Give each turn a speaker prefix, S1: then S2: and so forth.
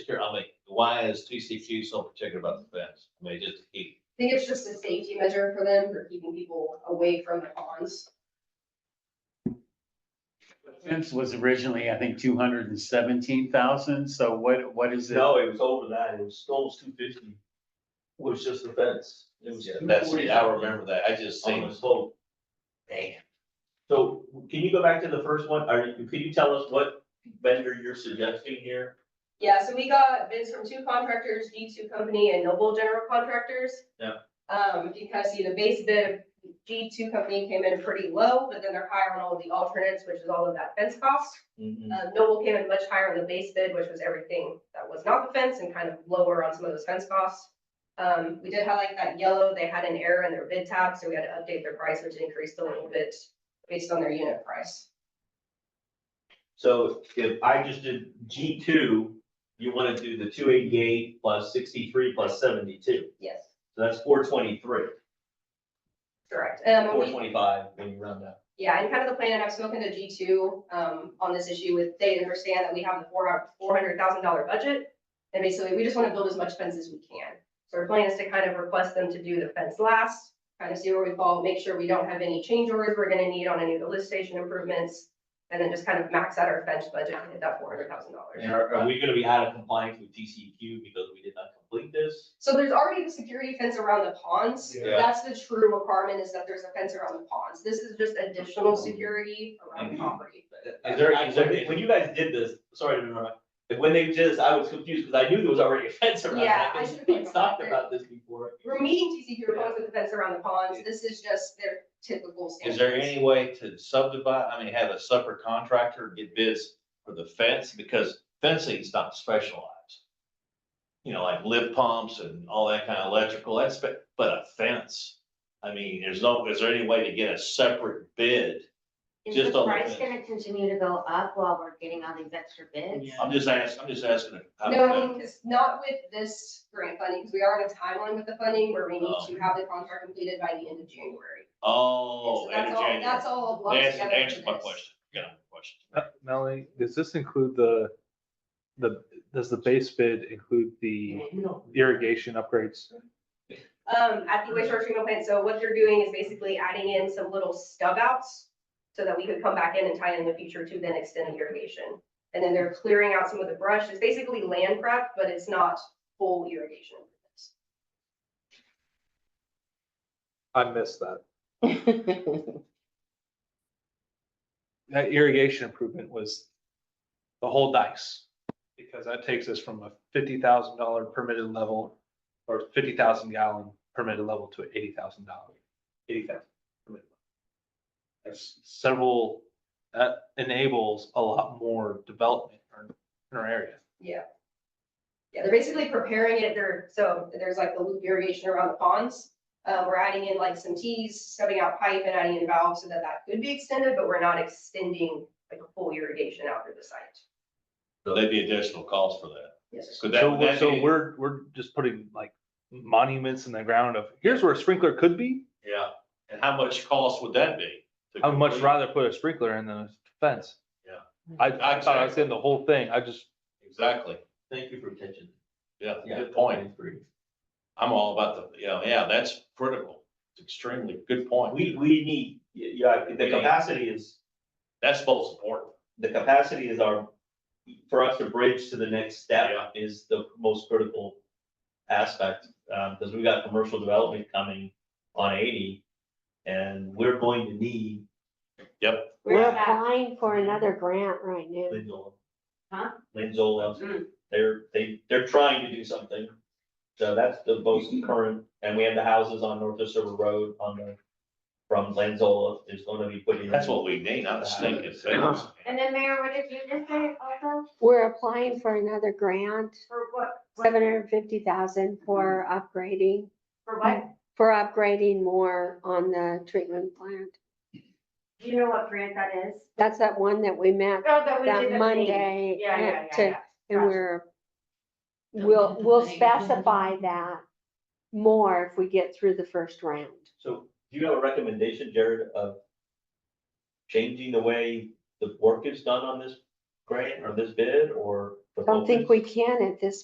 S1: why is TCQ so particular about the fence? I mean, just to keep,
S2: I think it's just a safety measure for them, for keeping people away from the ponds.
S3: The Fence was originally, I think, two hundred and seventeen thousand, so what, what is it?
S4: No, it was over that, it was almost two fifty, was just the fence. It was
S1: Yeah, that's, I
S4: 240
S1: remember that, I just
S4: On
S1: seen.
S4: the slope.
S1: Damn.
S4: So can you go back to the first one, are you, could you tell us what vendor you're suggesting here?
S2: Yeah, so we got bids from two contractors, G two company and Noble General Contractors.
S4: Yeah.
S2: Um, because, you know, base bid, of G two company came in pretty low, but then they're higher on all the alternates, which is all of that fence cost.
S1: Mm-hmm.
S2: Uh, Noble came in much higher on the base bid, which was everything that was not the fence and kind of lower on some of those fence costs. Um, we did have like that yellow, they had an error in their bid tab, so we had to update their price, which increased a little bit based on their unit price.
S4: So if I just did G two, you wanna do the two eighty-eight plus sixty-three plus seventy-two,
S2: Yes.
S4: so that's four twenty-three,
S2: Correct. Um,
S4: four
S2: we-
S4: twenty-five when you round up.
S2: Yeah, and kind of the plan, and I've spoken to G two, um, on this issue with, they understand that we have the four, four hundred thousand dollar budget. And basically, we just want to build as much fence as we can. So our plan is to kind of request them to do the fence last, kind of see where we fall, make sure we don't have any change orders we're gonna need on any of the lift station improvements. And then just kind of max out our fence budget and hit that four hundred thousand dollars.
S4: And are, are we gonna be out of compliance with DCQ because we did not complete this?
S2: So there's already the security fence around the ponds.
S1: Yeah.
S2: That's the true requirement is that there's a fence around the ponds. This is just additional security around the property.
S4: Is there, is there- when you guys did this, sorry to interrupt, but when they did this, I was confused because I knew there was already a fence around
S2: Yeah,
S4: that.
S2: I should've
S4: We
S2: put-
S4: talked about this before.
S2: we're meeting TCQ requirements with the fence around the ponds, this is just their typical
S1: Is
S2: standards.
S1: there any way to subdivide, I mean, have a separate contractor get bids for the fence, because fencing's not specialized. You know, like lip pumps and all that kind of electrical, that's, spe- but a fence, I mean, there's no, is there any way to get a separate bid?
S5: Is
S1: Just
S5: the
S1: on the
S5: price
S1: fence.
S5: gonna continue to go up while we're getting all these extra bids?
S1: I'm just asking, I'm just asking. how to
S2: No, I
S1: do it.
S2: mean, because not with this grant funding, because we are on a timeline with the funding where we need to have the contract completed by the end of January.
S1: Oh,
S2: So
S1: end
S2: that's
S1: of
S2: all-
S1: January.
S2: That's all lumped
S1: That's-
S2: together for
S1: answers my
S2: this.
S1: question, got my question.
S6: Uh, Melanie, does this include the, the, does the base bid include the irrigation upgrades?
S2: Um, at the wastewater treatment plant, so what they're doing is basically adding in some little stub outs so that we could come back in and tie in the future to then extend the irrigation. And then they're clearing out some of the brush, it's basically land prep, but it's not full irrigation.
S6: I missed that. That irrigation improvement was the whole dice. Because that takes us from a fifty thousand dollar permitted level or fifty thousand gallon permitted level to eighty thousand dollar, eighty thousand. permitted level. That's several, that enables a lot more development in our- in our area.
S2: Yeah. Yeah, they're basically preparing it, they're, so there's like the loop irrigation around the ponds. Uh, we're adding in like some tees, stubbing out pipe and adding in valves so that that could be extended, but we're not extending like a full irrigation out through the site.
S1: So there'd be additional cost for that.
S2: Yes.
S1: Could that-
S6: So,
S1: would
S6: we're-
S1: that
S6: so
S1: be-
S6: we're, we're just putting like monuments in the ground of, here's where a sprinkler could be.
S1: Yeah, and how much cost would that be? to
S6: I would much
S1: complete?
S6: rather put a sprinkler in than a fence.
S1: Yeah.
S6: I, I thought I was
S1: Exactly.
S6: in the whole thing. I just,
S1: Exactly,
S4: Thank you for attention.
S1: yeah, good point. I'm all about the, you know, yeah, that's critical. It's extremely good point.
S4: We, we need, yeah, the capacity is,
S1: That's most important.
S4: the capacity is our, for us to bridge to the next step
S1: Yeah.
S4: is the most critical aspect. Um, because we got commercial development coming on eighty, and we're going to need
S5: We're
S2: Yeah.
S5: applying for another grant right now.
S4: Linzola.
S5: Huh?
S4: Linzola,
S2: Mm.
S4: they're, they, they're trying to do something. So that's the most
S5: Mm-hmm.
S4: current, and we have the houses on North Osiris Road on the, from Linzola, there's gonna be putting.
S1: That's what we need, not a stinking fence.
S5: And then Mayor, what did you just say also? We're applying for another grant,
S2: For what,
S5: seven hundred and fifty thousand for
S7: Mm-hmm.
S5: upgrading,
S2: for what,
S5: for upgrading more on the treatment plant.
S7: Do you know what grant that is?
S5: That's that one that we met
S7: Oh, we did the
S5: that
S7: thing.
S5: Monday.
S7: Yeah, yeah,
S5: to-
S7: yeah, yeah.
S5: And
S7: Gotcha.
S5: we're, we'll, we'll specify that more if we get through the first round.
S4: So do you have a recommendation, Jared, of changing the way the work is done on this grant or this bid or? the
S5: Don't think
S4: focus?
S5: we can at this